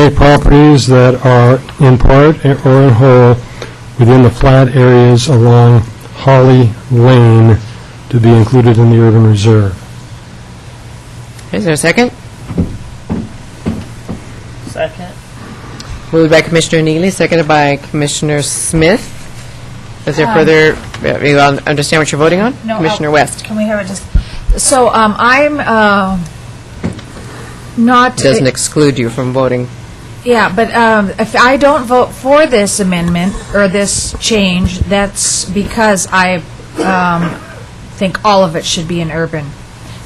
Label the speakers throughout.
Speaker 1: any properties that are in part or in whole within the flat areas along Holly Lane to be included in the urban reserve.
Speaker 2: Is there a second?
Speaker 3: Second.
Speaker 2: Moved by Commissioner Neely, seconded by Commissioner Smith. Is there
Speaker 3: Um,
Speaker 2: further, uh, you all understand what you're voting on?
Speaker 3: No, uh, I'll-
Speaker 2: Commissioner West.
Speaker 3: Can we have it just, so um, I'm uh, not. uh,
Speaker 2: Doesn't exclude you from voting.
Speaker 3: Yeah, but um, if I don't vote for this amendment or this change, that's because I um, think all of it should be in urban.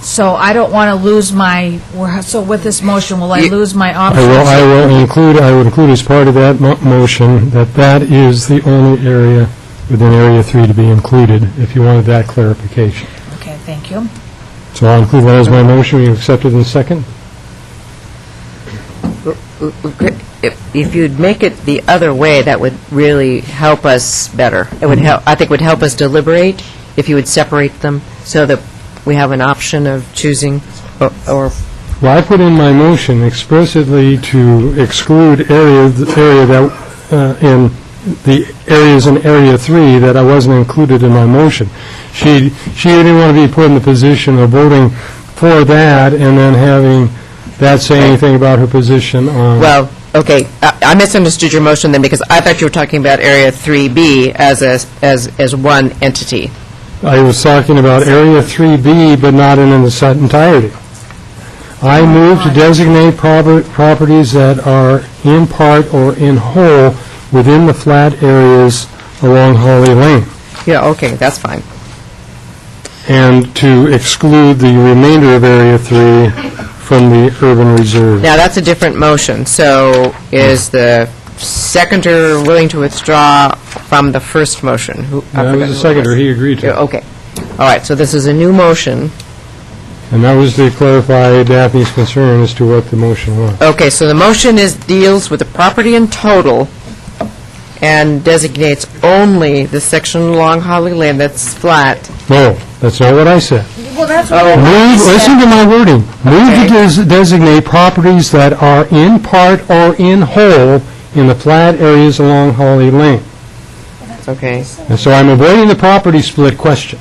Speaker 3: So I don't want to lose my, so with this motion, will I
Speaker 2: You-
Speaker 3: lose my
Speaker 1: I will, I
Speaker 3: options?
Speaker 1: will include, I would include as part of that mo- motion that that is the only area within Area 3 to be included, if you wanted that clarification.
Speaker 3: Okay, thank you.
Speaker 1: So I'll include that as my motion, you accept it in second?
Speaker 2: If if you'd make it the other way, that would really help us better. It would help, I think would help us deliberate if you would separate them so that we have an option of choosing or- or,
Speaker 1: Well, I put in my motion explicitly to exclude area, the area that, uh, in the areas in Area 3 that I wasn't included in my motion. She, she didn't want to be put in the position of voting for that and then having that say anything about her position on...
Speaker 2: well, okay, I I misunderstood your motion then because I thought you were talking about Area 3B as a, as, as one entity.
Speaker 1: I was talking about Area 3B, but not in its entirety. I move to designate proper- properties that are in part or in whole within the flat areas along Holly Lane,
Speaker 2: Yeah, okay, that's fine.
Speaker 1: and to exclude the remainder of Area 3 from the urban reserve.
Speaker 2: Now, that's a different motion, so is the seconder willing to withdraw from the first motion? Who- I
Speaker 1: That
Speaker 2: forgot
Speaker 1: was the
Speaker 2: who it
Speaker 1: seconder, he agreed
Speaker 2: Yeah,
Speaker 1: to it.
Speaker 2: Okay. All right, so this is a new motion.
Speaker 1: And that was to clarify Daphne's concern as to what the motion was.
Speaker 2: Okay, so the motion is, deals with the property in total and designates only the section along Holly Lane that's flat.
Speaker 1: No, that's not what I said.
Speaker 3: Well, that's
Speaker 2: Oh,
Speaker 1: Move, listen to my wording. Move to
Speaker 2: Okay.
Speaker 1: des- designate properties that are in part or in whole in the flat areas along Holly Lane.
Speaker 2: okay.
Speaker 1: And so I'm avoiding the property split question.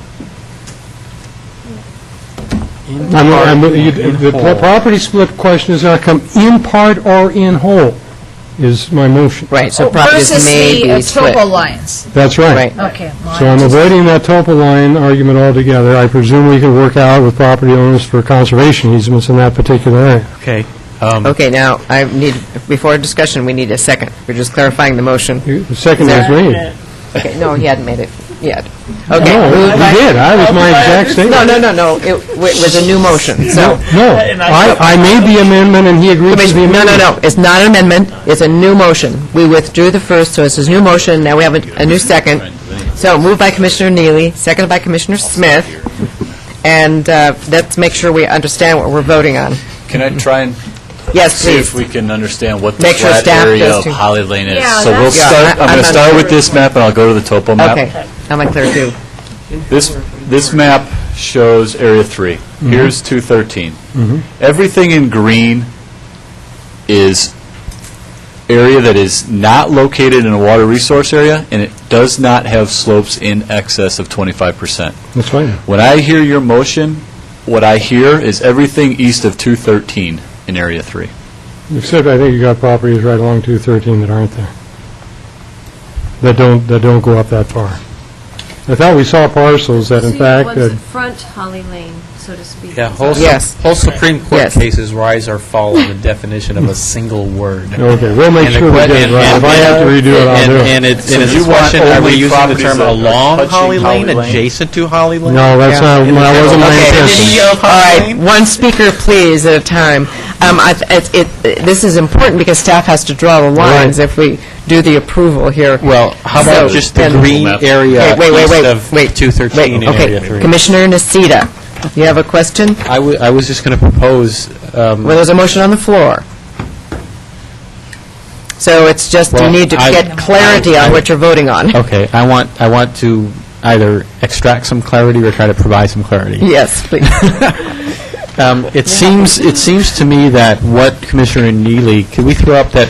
Speaker 1: I'm- I'm- you- The pro- property split question is not come in part or in whole, is my motion.
Speaker 2: Right, so properties may be
Speaker 3: Versus the uh,
Speaker 2: split.
Speaker 3: topo lines.
Speaker 1: That's
Speaker 2: Right.
Speaker 3: Okay. well,
Speaker 1: So I'm avoiding that topo line argument altogether. I presume we can work out with property owners for conservation easements in that particular area.
Speaker 4: Okay. um,
Speaker 2: Okay, now, I need, before discussion, we need a second. We're just clarifying the motion.
Speaker 1: You- The second is made.
Speaker 2: Okay, no, he hadn't made it yet.
Speaker 1: No,
Speaker 2: Okay.
Speaker 1: he did, I was my exact
Speaker 2: No,
Speaker 1: statement.
Speaker 2: no, no, no, it w- was a new motion, so.
Speaker 1: No, I, I made the amendment and he agreed to the
Speaker 2: Commissioner, no,
Speaker 1: amendment.
Speaker 2: no, no, it's not an amendment, it's a new motion. We withdrew the first, so it's a new motion, now we have a a new second. So moved by Commissioner Neely, seconded by Commissioner Smith, and uh, let's make sure we understand what we're voting on.
Speaker 4: Can I try and
Speaker 2: Yes,
Speaker 4: see if
Speaker 2: please.
Speaker 4: we can understand what the
Speaker 2: Make sure
Speaker 4: flat
Speaker 2: staff
Speaker 4: area
Speaker 2: does
Speaker 4: of
Speaker 2: too.
Speaker 4: Holly Lane is?
Speaker 3: Yeah,
Speaker 4: So we'll
Speaker 3: that's-
Speaker 2: Yeah,
Speaker 4: start,
Speaker 2: I-
Speaker 4: I'm going
Speaker 2: I'm
Speaker 4: to start
Speaker 2: unclear.
Speaker 4: with this map, and I'll go to the topo map.
Speaker 2: Okay, I'm unclear too.
Speaker 4: This, this map shows Area 3. Here's 213.
Speaker 1: Mm-hmm.
Speaker 4: Everything in green is area that is not located in a water resource area, and it does not have slopes in excess of 25%.
Speaker 1: That's fine.
Speaker 4: When I hear your motion, what I hear is everything east of 213 in Area 3.
Speaker 1: Except I think you got properties right along 213 that aren't there. That don't, that don't go up that far. I thought we saw parcels that in fact,
Speaker 5: So you
Speaker 1: that-
Speaker 5: want to front Holly Lane, so to speak.
Speaker 6: Yeah, whole,
Speaker 2: Yes.
Speaker 6: whole Supreme Court
Speaker 2: Yes.
Speaker 6: cases rise or fall on the definition of a single word.
Speaker 1: okay, we'll make
Speaker 6: And the
Speaker 1: sure we
Speaker 6: que-
Speaker 1: get it
Speaker 6: and-
Speaker 1: right. If I have to redo it, I'll
Speaker 6: and-
Speaker 1: do it.
Speaker 6: And it's,
Speaker 4: So
Speaker 6: and it's
Speaker 4: you
Speaker 6: a
Speaker 4: want
Speaker 6: question, are
Speaker 4: only
Speaker 6: we using the
Speaker 4: properties
Speaker 6: term
Speaker 4: that are
Speaker 6: along
Speaker 4: touching
Speaker 6: Holly Lane,
Speaker 4: Holly Lane?
Speaker 6: adjacent to Holly Lane?
Speaker 1: No, that's not,
Speaker 6: In the
Speaker 1: that wasn't my
Speaker 6: general
Speaker 1: intention.
Speaker 6: vicinity of
Speaker 2: All
Speaker 6: Holly
Speaker 2: right,
Speaker 6: Lane?
Speaker 2: one speaker, please, at a time. Um, I th- it's- it- This is important because staff has to draw the lines if we do the approval here.
Speaker 6: Well, how about
Speaker 2: So-
Speaker 6: just the
Speaker 2: and-
Speaker 6: green area
Speaker 2: Okay, wait, wait,
Speaker 6: east
Speaker 2: wait,
Speaker 6: of
Speaker 2: wait,
Speaker 6: 213
Speaker 2: wait,
Speaker 6: and Area
Speaker 2: okay.
Speaker 6: 3?
Speaker 2: Commissioner Nocita, you have a question?
Speaker 6: I wa- I was just going to propose, um,
Speaker 2: Well, there's a motion on the floor. So it's just, you
Speaker 6: Well,
Speaker 2: need to
Speaker 6: I-
Speaker 2: get clarity on what you're voting on.
Speaker 6: okay, I want, I want to either extract some clarity or try to provide some clarity.
Speaker 2: Yes, please.
Speaker 6: Um, It seems, it seems to me that what Commissioner Neely, can we throw up that